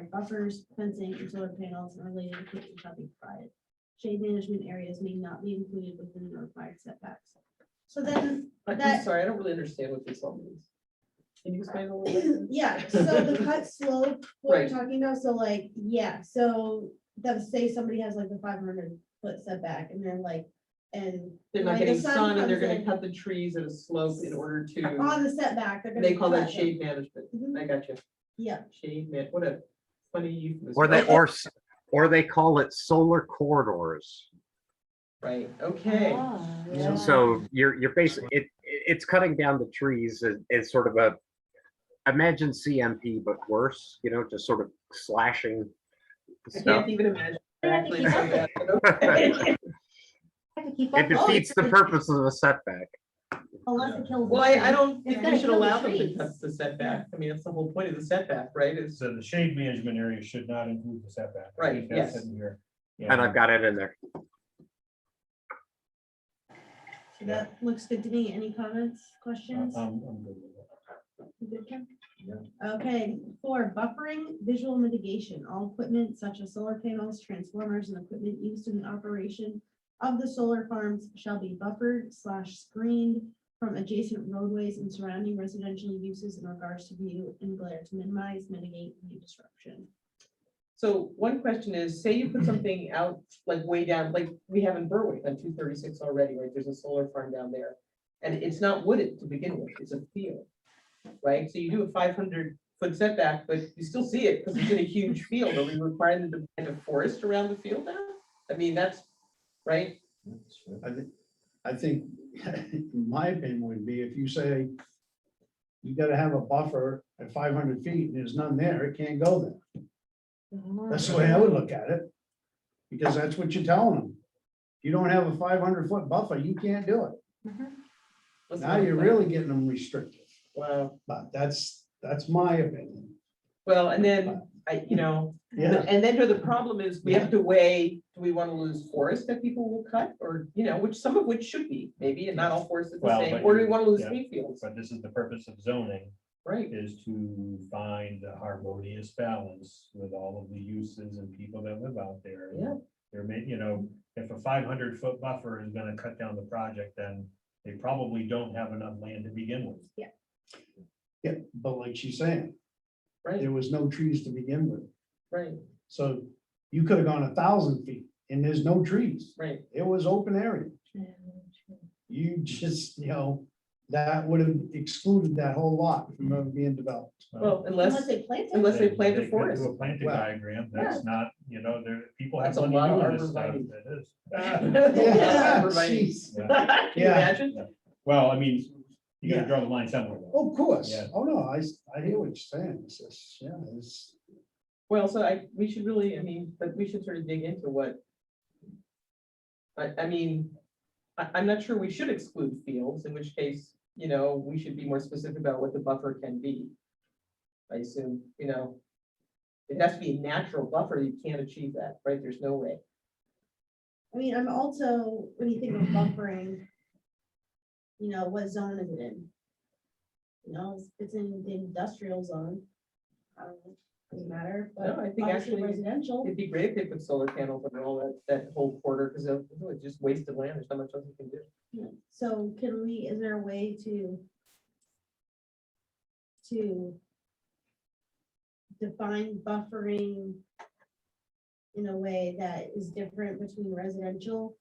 required buffers, fencing, and solar panels and related equipment shall be provided. Shade management areas may not be included within the required setbacks. So then I- I'm That- sorry, I don't really understand what this all means. Can you explain a little bit? Yeah, so the cut slope, what we're Right. talking about, so like, yeah, so that's say somebody has like a five hundred foot setback and they're like, and. They're not like, the getting sun and they're comes gonna in cut the trees at a slope in order to, On the setback, they're gonna. they call that cut them. shade management. Mhm, I got you. Yeah, Shade man, what a funny euphemism. Or they, or, s- or they call it solar corridors. Right, okay. Oh. So- So you're, you're basically, it, it- it's cutting down the trees as, as sort of a, imagine CMP but worse, you know, just sort of slashing I stuff. can't even imagine. They have to actually keep doing up that, but okay. Have to keep It up. defeats the purpose of a setback. unless it kills. the Well, I, I tree. don't think gotta we should kill the allow them to trees. touch the setback. I mean, that's the whole point of the setback, right? Is, So the shade management area should not include the setback. I Right, think that's yes. in here. Yeah. And I've got it in there. So That looks good to me. Any comments, questions? I'm, I'm good with it. You good, Kim? Okay, four, buffering visual mitigation, all equipment such as solar panels, transformers, and equipment used in the operation of the solar farms shall be buffered slash screened from adjacent roadways and surrounding residential uses in regards to view and glare to minimize, mitigate view disruption. so one question is, say you put something out like way down, like we have in Berwick on two thirty-six already, right? There's a solar farm down there. And it's not wooded to begin with, it's a field, right? So you do a five hundred foot setback, but you still see it because it's in a huge field. Are we requiring them to plant a forest around the field now? I mean, that's, right? I think, I think, my opinion would be if you say you gotta have a buffer at five hundred feet and there's none there, it can't go there. That's the way I would look at it. Because that's what you're telling them. If You don't have a five hundred foot buffer, you can't do it. What's Now the- you're really getting them restricted, Wow. but that's, that's my opinion. Well, and then I, you know, Yeah, And then the problem is, we have to weigh, do we want to lose forests that people will cut or, you know, which some of which should be maybe, and not all forests are the Well, same, but or do we you- want to lose yeah. green fields? But this is the purpose of zoning Right, is to find a harmonious balance with all of the uses and people that live out there. Yeah. There may, you know, if a five hundred foot buffer is gonna cut down the project, then they probably don't have enough land to begin with. yeah, but like she's saying, right, there was no trees to begin with. right, So you could have gone a thousand feet and there's no trees. right. It was open area. You just, you know, that would have excluded that whole lot from ever being developed. Um, Well, Unless unless, they plant it. unless they plant They a could forest. Do a planting Wow. diagram, that's not, you know, there, people have That's a money lot of doing this stuff, arborvitae. it is. Yeah, right. Jeez. Can Yeah. you Yeah. imagine? Well, I mean, you Yeah. gotta draw the line somewhere. though. Of course. Yeah. Oh, no, I, s- I hear what you're saying. It's just, yeah, it's, Well, so I, we should really, I mean, but we should sort of dig into what. I, I mean, I, I'm not sure we should exclude fields, in which case, you know, we should be more specific about what the buffer can be. I assume, you know. It has to be a natural buffer, you can't achieve that, right? There's no way. I mean, I'm also, when you think of buffering, you know, what zone is it in? You know, if it's in the industrial zone. um, Doesn't matter, but No, I think obviously actually- residential. It'd be great if they put solar panels on all that, that whole quarter, because it's just waste of land, there's not much else you can do. Yeah, So can we, is there a way to? To. Define buffering. In a way that is different between residential.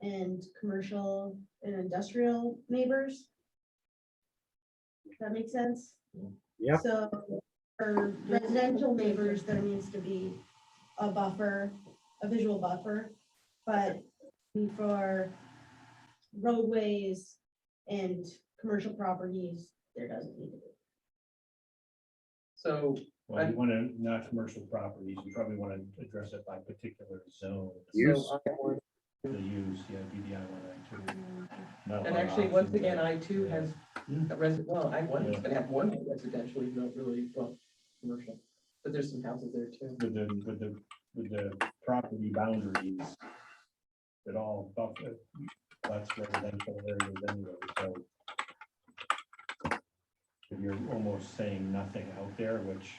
And commercial and industrial neighbors? Does that make sense? Yep. So for residential neighbors, there needs to be a buffer, a visual buffer. But for roadways and commercial properties, there doesn't need to be. So, Well, you wanna, not commercial properties, you probably wanna address it by particular zone. Use. so I want- The use, yeah, BDI one, I two. Not And by Hmm. actually, option, once but- again, I too has Yeah. a resi- well, I one, it's gonna have one residential, even though it really, well, commercial. But there's some houses there too. With the, with the, with the property boundaries. That all buffer, that's residential areas anyway, so. If you're almost saying nothing out there, which